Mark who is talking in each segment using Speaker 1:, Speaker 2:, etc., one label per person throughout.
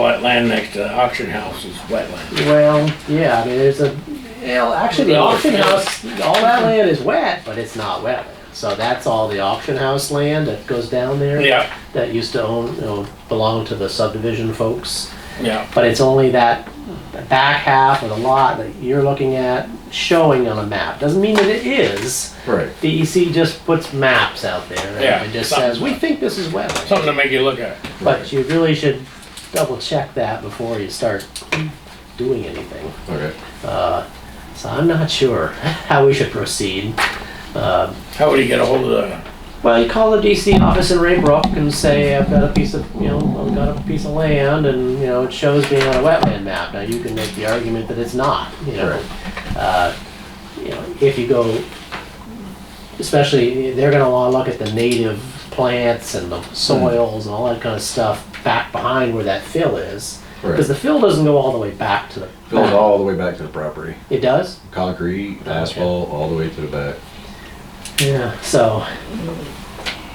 Speaker 1: land next to the auction house is wetland.
Speaker 2: Well, yeah, I mean, there's a, well, actually, the auction house, all that land is wet, but it's not wetland. So that's all the auction house land that goes down there.
Speaker 1: Yeah,
Speaker 2: That used to own, you know, belong to the subdivision folks.
Speaker 1: yeah,
Speaker 2: But it's only that back half of the lot that you're looking at showing on a map. Doesn't mean that it is.
Speaker 3: Right.
Speaker 2: DEC just puts maps out there. and
Speaker 1: Yeah,
Speaker 2: It just
Speaker 1: something.
Speaker 2: says, we think this is wetland.
Speaker 1: something to make you look at.
Speaker 2: But you really should double check that before you start doing anything. Uh,
Speaker 3: Okay.
Speaker 2: So I'm not sure how we should proceed.
Speaker 1: How would you get a hold of the,
Speaker 2: Well, you call the DC office in Raybrook and say, I've got a piece of, you know, I've got a piece of land and, you know, it shows being on a wetland map. Now, you can make the argument that it's not, you know.
Speaker 3: Right.
Speaker 2: Uh, You know, if you go, especially, they're gonna wanna look at the native plants and the
Speaker 3: Hmm.
Speaker 2: soils and all that kinda stuff back behind where that fill is. Because the
Speaker 3: Right.
Speaker 2: fill doesn't go all the way back to the.
Speaker 3: Goes all the way back to the property.
Speaker 2: It does?
Speaker 3: Concrete,
Speaker 2: Okay.
Speaker 3: asphalt, all the way to the back.
Speaker 2: Yeah. So,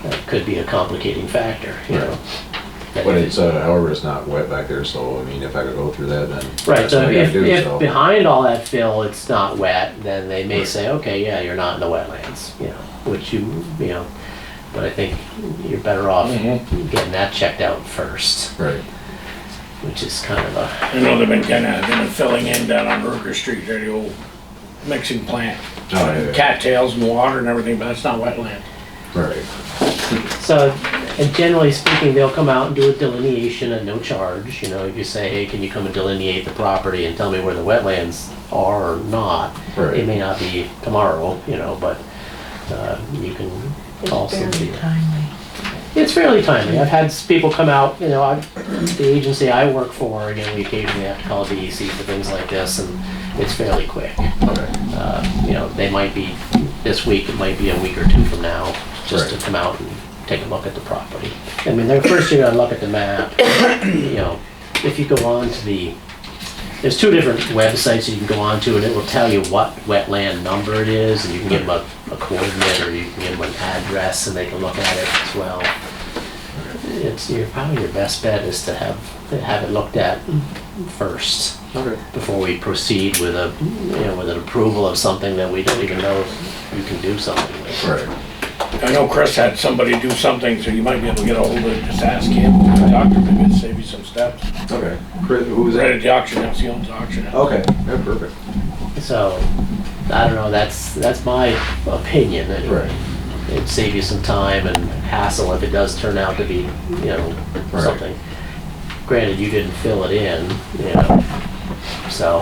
Speaker 2: that could be a complicating factor, you know. That
Speaker 3: But
Speaker 2: if
Speaker 3: it's, uh, however, it's not wet back there, so I mean, if I could go through that, then.
Speaker 2: Right,
Speaker 3: that's
Speaker 2: so
Speaker 3: what I gotta
Speaker 2: if,
Speaker 3: do,
Speaker 2: if
Speaker 3: so.
Speaker 2: behind all that fill, it's not wet, then they may
Speaker 3: Right.
Speaker 2: say, okay, yeah, you're not in the wetlands, you know, which you, you know, but I think you're better off
Speaker 3: Mm-hmm.
Speaker 2: getting that checked out first,
Speaker 3: Right,
Speaker 2: which is kind of a,
Speaker 1: you know, they've been kinda, they've been filling in down on Ruger Street, there the old mixing plant.
Speaker 3: Oh, yeah, yeah.
Speaker 1: Cattails and water and everything, but that's not wetland.
Speaker 3: right,
Speaker 2: so, and generally speaking, they'll come out and do a delineation at no charge, you know, if you say, hey, can you come and delineate the property and tell me where the wetlands are or not?
Speaker 3: Right.
Speaker 2: It may not be tomorrow, you know, but, uh, you can call somebody.
Speaker 4: timely.
Speaker 2: It's fairly timely. I've had s- people come out, you know, I, the agency I work for, you know, we occasionally have to call DEC for things like this, and it's fairly quick.
Speaker 3: okay,
Speaker 2: Uh, You know, they might be, this week, it might be a week or two from now, just to
Speaker 3: Right.
Speaker 2: come out and take a look at the property. I mean, they're first you're gonna look at the map, you know, if you go on to the, there's two different websites you can go on to, and it will tell you what wetland number it is, and you can give them a a coordinate, or you can give them an address, and they can look at it as well. It's, your probably your best bet is to have, have it looked at first
Speaker 3: okay,
Speaker 2: before we proceed with a, you know, with an approval of something that we don't even know if you can do something with.
Speaker 3: right.
Speaker 1: I know Chris had somebody do something, so you might be able to get a hold of it, just ask him, talk to him, maybe it'll save you some steps.
Speaker 3: Okay. Chris, who was
Speaker 1: Right
Speaker 3: that?
Speaker 1: at the auction house, he owns the auction house.
Speaker 3: Okay, yeah, perfect.
Speaker 2: So, I don't know, that's, that's my opinion anyway.
Speaker 3: Right.
Speaker 2: It'd save you some time and hassle if it does turn out to be, you know,
Speaker 3: Right.
Speaker 2: something. Granted, you didn't fill it in, you know, so.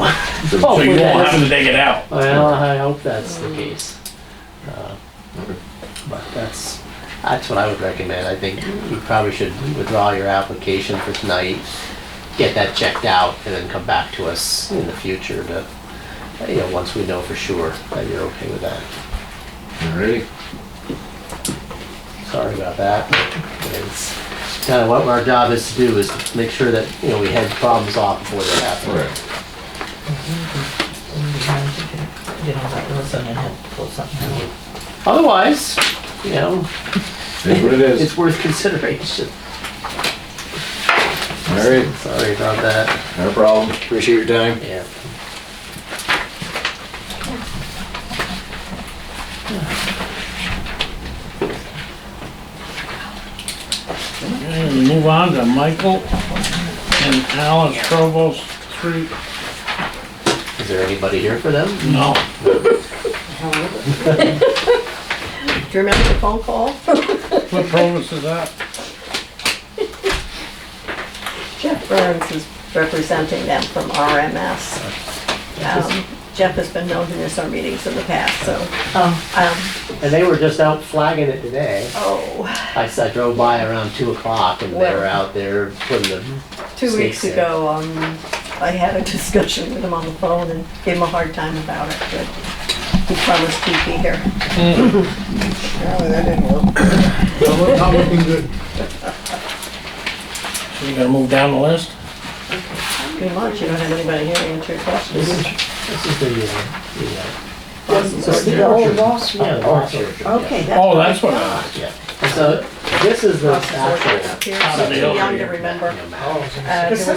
Speaker 1: So
Speaker 2: hopefully
Speaker 1: you
Speaker 2: that
Speaker 1: won't have
Speaker 2: doesn't-
Speaker 1: to dig it out.
Speaker 2: Well, I hope that's the case. Uh,
Speaker 3: Okay.
Speaker 2: But that's, that's what I would recommend. I think you probably should withdraw your application for tonight, get that checked out, and then come back to us in the future to, you know, once we know for sure that you're okay with that.
Speaker 3: Alrighty,
Speaker 2: Sorry about that. It's kind of what our job is to do is to make sure that, you know, we head problems off before they happen.
Speaker 3: alright,
Speaker 4: Did all that Wilson and had to pull something out.
Speaker 2: Otherwise, you know,
Speaker 3: is what it
Speaker 2: it's
Speaker 3: is.
Speaker 2: worth consideration.
Speaker 3: Alright,
Speaker 2: Sorry about that.
Speaker 3: no problem, appreciate your time.
Speaker 2: Yeah.
Speaker 1: Okay, we move on to Michael and Alice Provost Street.
Speaker 2: Is there anybody here for them?
Speaker 1: No,
Speaker 4: Do you remember the phone call?
Speaker 1: what Provost is that?
Speaker 4: Jeff Burns is representing them from RMS. Um, Jeff has been known to miss our meetings in the past, so. Oh.
Speaker 2: And they were just out flagging it today.
Speaker 4: Oh,
Speaker 2: I, s- I drove by around two o'clock and they were
Speaker 4: Well-
Speaker 2: out there putting the,
Speaker 4: two weeks
Speaker 2: Snakes in.
Speaker 4: ago, um, I had a discussion with him on the phone and gave him a hard time about it, but he promised he'd be here.
Speaker 5: Apparently that didn't work. Not looking good.
Speaker 1: So you gotta move down the list?
Speaker 4: Pretty much, you don't have anybody here to answer your
Speaker 2: this is,
Speaker 4: questions.
Speaker 2: this is the, uh, the, uh,
Speaker 6: It's the old boss.
Speaker 2: yeah, the box orchard.
Speaker 6: Okay, that's.
Speaker 1: Oh, that's what, I-
Speaker 2: Yeah. And so this is the actual.
Speaker 4: Here,
Speaker 1: Out of the
Speaker 4: so too
Speaker 1: hill
Speaker 4: young
Speaker 1: here.
Speaker 4: to remember.
Speaker 2: you know, map.
Speaker 5: Oh, it's in the
Speaker 4: Uh, there was